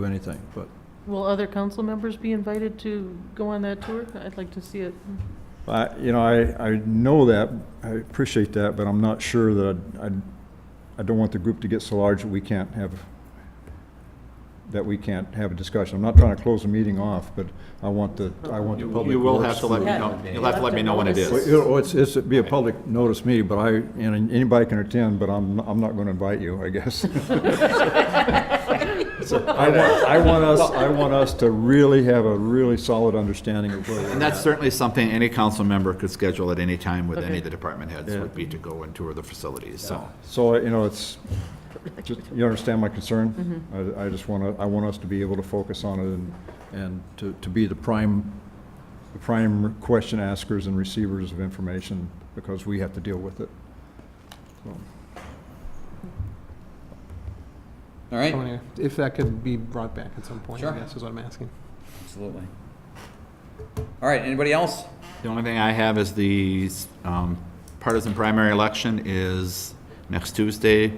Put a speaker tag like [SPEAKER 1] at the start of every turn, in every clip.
[SPEAKER 1] do anything, but
[SPEAKER 2] Will other council members be invited to go on that tour? I'd like to see it.
[SPEAKER 1] I, you know, I, I know that, I appreciate that, but I'm not sure that I, I, I don't want the group to get so large that we can't have, that we can't have a discussion. I'm not trying to close the meeting off, but I want the, I want the public.
[SPEAKER 3] You will
[SPEAKER 1] works
[SPEAKER 3] have to let me
[SPEAKER 1] group-
[SPEAKER 3] know, you'll have to let me know when it
[SPEAKER 1] Well,
[SPEAKER 3] is.
[SPEAKER 1] you know, It's, it's, it'd be a public notice meeting, but I, and anybody can attend, but I'm, I'm not gonna invite you, I guess. I want, I want us, I want us to really have a really solid understanding of where we're
[SPEAKER 3] And that's certainly something any council member could schedule at any time with any
[SPEAKER 2] Okay.
[SPEAKER 3] of the department heads,
[SPEAKER 1] Yeah.
[SPEAKER 3] would be to go and tour the facilities, so.
[SPEAKER 1] So, you know, it's, just, you understand my concern? I, I just want to, I want us to be able to focus on it and, and to, to be the prime, the prime question askers and receivers of information, because we have to deal with it.
[SPEAKER 4] All right,
[SPEAKER 5] I mean, If that could be brought back at some point,
[SPEAKER 4] Sure.
[SPEAKER 5] I guess is what I'm asking.
[SPEAKER 4] absolutely. All right, anybody else?
[SPEAKER 3] The only thing I have is the um, partisan primary election is next Tuesday,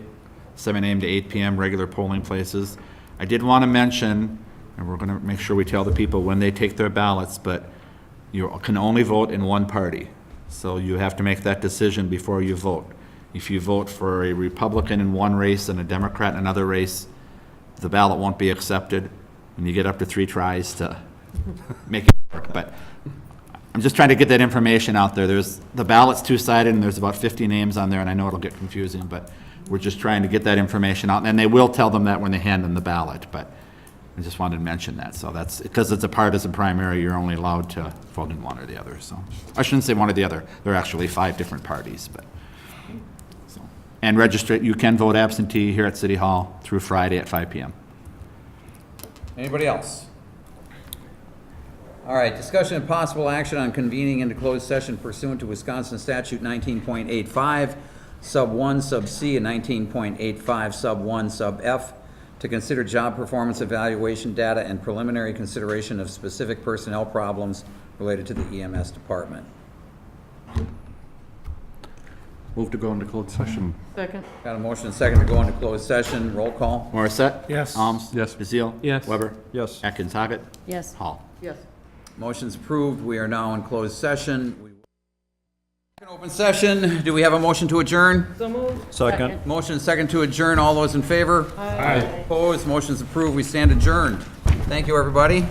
[SPEAKER 3] 7 AM to 8 PM, regular polling places. I did want to mention, and we're going to make sure we tell the people when they take their ballots, but you can only vote in one party. So you have to make that decision before you vote. If you vote for a Republican in one race and a Democrat in another race, the ballot won't be accepted, and you get up to three tries to make it work. But I'm just trying to get that information out there. There's, the ballot's two-sided, and there's about 50 names on there, and I know it'll get confusing, but we're just trying to get that information out, and they will tell them that when they hand them the ballot, but I just wanted to mention that, so that's, because it's a partisan primary, you're only allowed to vote in one or the other, so. I shouldn't say one or the other, there are actually five different parties, but, so. And register, you can vote absentee here at City Hall through Friday at 5 PM.
[SPEAKER 4] Anybody else? All right, discussion and possible action on convening into closed session pursuant to Wisconsin statute nineteen point eight five, sub one, sub C, and nineteen point eight five, sub one, sub F, to consider job performance evaluation data and preliminary consideration of specific personnel problems related to the EMS department.
[SPEAKER 6] Move to go into closed session.
[SPEAKER 2] Second.
[SPEAKER 4] Got a motion and second to go into closed session, roll call?
[SPEAKER 3] Morissette?
[SPEAKER 5] Yes.
[SPEAKER 3] Alms?
[SPEAKER 6] Yes.
[SPEAKER 3] Bazil?
[SPEAKER 5] Yes.
[SPEAKER 3] Weber?
[SPEAKER 1] Yes.
[SPEAKER 3] Atkins, Hoggett?
[SPEAKER 7] Yes.
[SPEAKER 3] Hall?
[SPEAKER 2] Yes.
[SPEAKER 4] Motion's approved, we are now in closed session. We- Open session, do we have a motion to adjourn?
[SPEAKER 2] So moved.
[SPEAKER 1] Second.
[SPEAKER 4] Motion second to adjourn. All those in favor? Aye. Opposed? Motion's approved. We stand adjourned. Thank you, everybody.